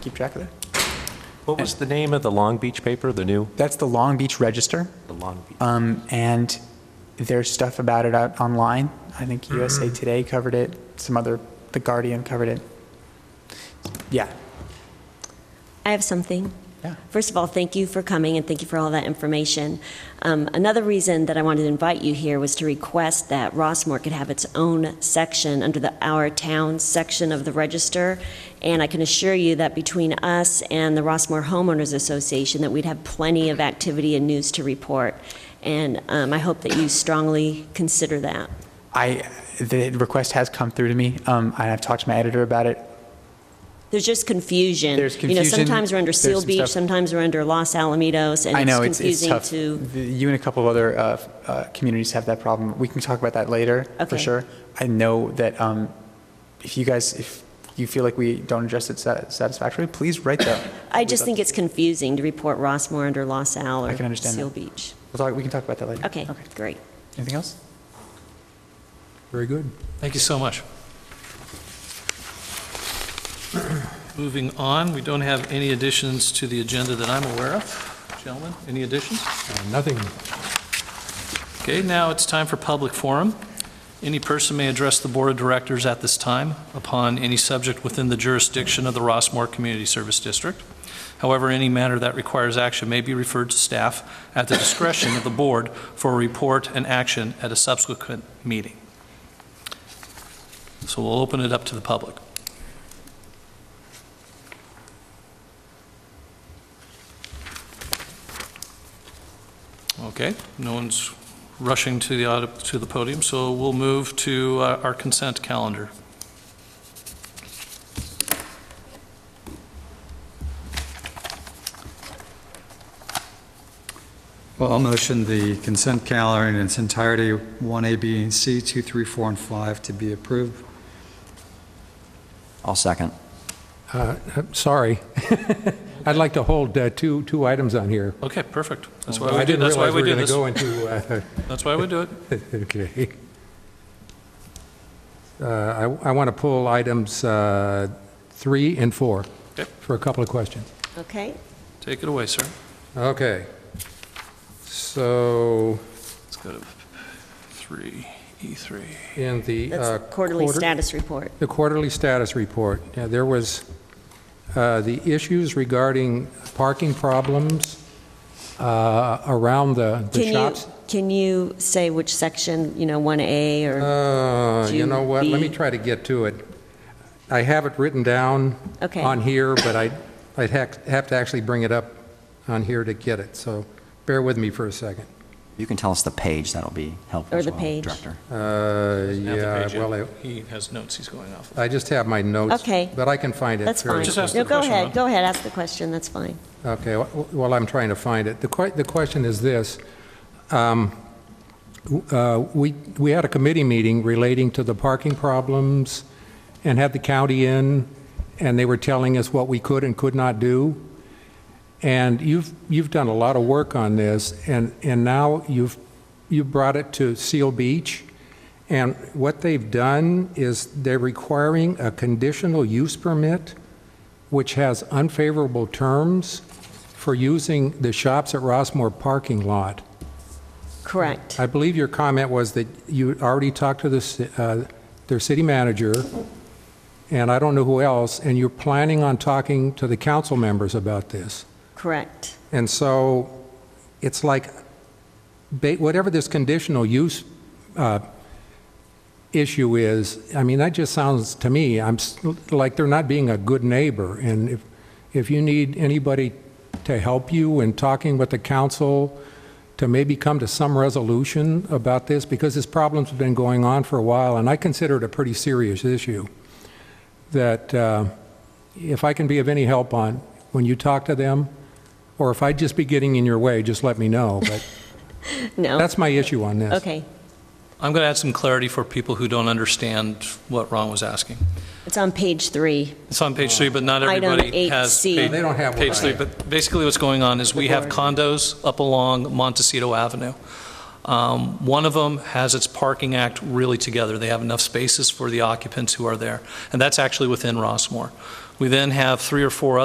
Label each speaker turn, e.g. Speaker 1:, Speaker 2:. Speaker 1: keep track of that.
Speaker 2: What was the name of the Long Beach paper, the new?
Speaker 1: That's the Long Beach Register,
Speaker 2: The Long Beach.
Speaker 1: um, and there's stuff about it out online. I think USA Today covered it. Some other, The Guardian covered it. Yeah,
Speaker 3: I have something.
Speaker 1: yeah.
Speaker 3: First of all, thank you for coming and thank you for all that information. Um, another reason that I wanted to invite you here was to request that Rossmore could have its own section under the Our Town section of the register. And I can assure you that between us and the Rossmore Homeowners Association, that we'd have plenty of activity and news to report. And um, I hope that you strongly consider that.
Speaker 1: I, the request has come through to me, um, and I've talked to my editor about it.
Speaker 3: There's just confusion.
Speaker 1: There's
Speaker 3: You know,
Speaker 1: confusion.
Speaker 3: sometimes we're under
Speaker 1: There's
Speaker 3: Seal
Speaker 1: some
Speaker 3: Beach,
Speaker 1: stuff-
Speaker 3: sometimes we're under Los Alamitos,
Speaker 1: I
Speaker 3: and
Speaker 1: know,
Speaker 3: it's
Speaker 1: it's, it's
Speaker 3: confusing
Speaker 1: tough.
Speaker 3: to
Speaker 1: The- You and a couple of other uh, uh, communities have that problem. We can talk about that later, for
Speaker 3: Okay.
Speaker 1: sure. I know that um, if you guys, if you feel like we don't address it sat- satisfactorily, please write that.
Speaker 3: I just think it's confusing to report Rossmore under Los Al
Speaker 1: I can
Speaker 3: or
Speaker 1: understand
Speaker 3: Seal
Speaker 1: that.
Speaker 3: Beach.
Speaker 1: We'll talk, we can talk about that later.
Speaker 3: Okay, great.
Speaker 1: Anything else?
Speaker 4: Very good.
Speaker 5: Thank you so much. Moving on, we don't have any additions to the agenda that I'm aware of. Gentlemen, any additions?
Speaker 4: Uh, Nothing,
Speaker 5: Okay, now it's time for public forum. Any person may address the Board of Directors at this time upon any subject within the jurisdiction of the Rossmore Community Service District. However, any matter that requires action may be referred to staff at the discretion of the board for a report and action at a subsequent meeting. So we'll open it up to the public. Okay, no one's rushing to the, aud- to the podium, so we'll move to uh, our consent calendar.
Speaker 6: Well, I'll motion the consent calendar in its entirety, 1A, B, and C, 2, 3, 4, and 5 to be approved.
Speaker 7: I'll second.
Speaker 4: Uh, I'm sorry. I'd like to hold uh, two, two items on here.
Speaker 5: Okay, perfect. That's why
Speaker 4: I
Speaker 5: we do,
Speaker 4: didn't
Speaker 5: that's why
Speaker 4: realize
Speaker 5: we
Speaker 4: we
Speaker 5: do
Speaker 4: were going
Speaker 5: this.
Speaker 4: to go into, uh,
Speaker 5: That's why we do it.
Speaker 4: okay. Uh, I want to pull items uh, three and four
Speaker 5: Okay.
Speaker 4: for a couple of questions.
Speaker 3: Okay,
Speaker 5: Take it away, sir.
Speaker 4: Okay. So
Speaker 5: Let's go to three, E3.
Speaker 4: in the uh,
Speaker 3: that's quarterly
Speaker 4: quarter-
Speaker 3: status report.
Speaker 4: The quarterly status report, Yeah, there was uh, the issues regarding parking problems uh, around the the
Speaker 3: Can you,
Speaker 4: shops.
Speaker 3: can you say which section, you know, 1A or,
Speaker 4: Uh, You know what, let me
Speaker 3: G B?
Speaker 4: try to get to it. I have it written down
Speaker 3: okay.
Speaker 4: Uh, on here, but I- I'd hac- have to actually bring it up on here to get it, so bear with me for a second.
Speaker 7: You can tell us the page, that'll be helpful
Speaker 3: Or
Speaker 7: as
Speaker 3: the
Speaker 7: well,
Speaker 3: page.
Speaker 7: Director.
Speaker 4: Uh,
Speaker 5: Have the
Speaker 4: Yeah,
Speaker 5: page
Speaker 4: well,
Speaker 5: yet.
Speaker 4: I-
Speaker 5: He has notes he's going off. of.
Speaker 4: I just have my notes.
Speaker 3: Okay.
Speaker 4: But I can find it.
Speaker 3: That's
Speaker 4: very
Speaker 3: fine.
Speaker 5: Just ask
Speaker 3: No,
Speaker 5: the
Speaker 3: go
Speaker 5: question,
Speaker 3: ahead,
Speaker 5: huh?
Speaker 3: go ahead, ask the question, that's fine.
Speaker 4: Okay, wh- wh- while I'm trying to find it, the que, the question is this. Um, w- uh, We, we had a committee meeting relating to the parking problems and had the county in, and they were telling us what we could and could not do. And you've, you've done a lot of work on this, and, and now you've, you brought it to Seal Beach. And what they've done is they're requiring a conditional use permit which has unfavorable terms for using the shops at Rossmore parking lot.
Speaker 3: Correct.
Speaker 4: I believe your comment was that you already talked to the, ci- uh, their city manager, and I don't know who else, and you're planning on talking to the council members about this.
Speaker 3: Correct.
Speaker 4: And so it's like, ba- whatever this conditional use uh, issue is, I mean, that just sounds to me, I'm, s- like they're not being a good neighbor. And if, if you need anybody to help you in talking with the council to maybe come to some resolution about this, because this problem's been going on for a while, and I consider it a pretty serious issue, that uh, if I can be of any help on, when you talk to them, or if I'd just be getting in your way, just let me know. But
Speaker 3: No,
Speaker 4: that's my issue on this.
Speaker 3: okay.
Speaker 5: I'm going to add some clarity for people who don't understand what Ron was asking.
Speaker 3: It's on page three.
Speaker 5: It's on page three, but not
Speaker 3: Item
Speaker 5: everybody has.
Speaker 3: 8C.
Speaker 5: page-
Speaker 4: They don't have one.
Speaker 5: Page three, but basically what's going on is we have condos up along Montecito Avenue. Um, One of them has its parking act really together. They have enough spaces for the occupants who are there, and that's actually within Rossmore. We then have three or four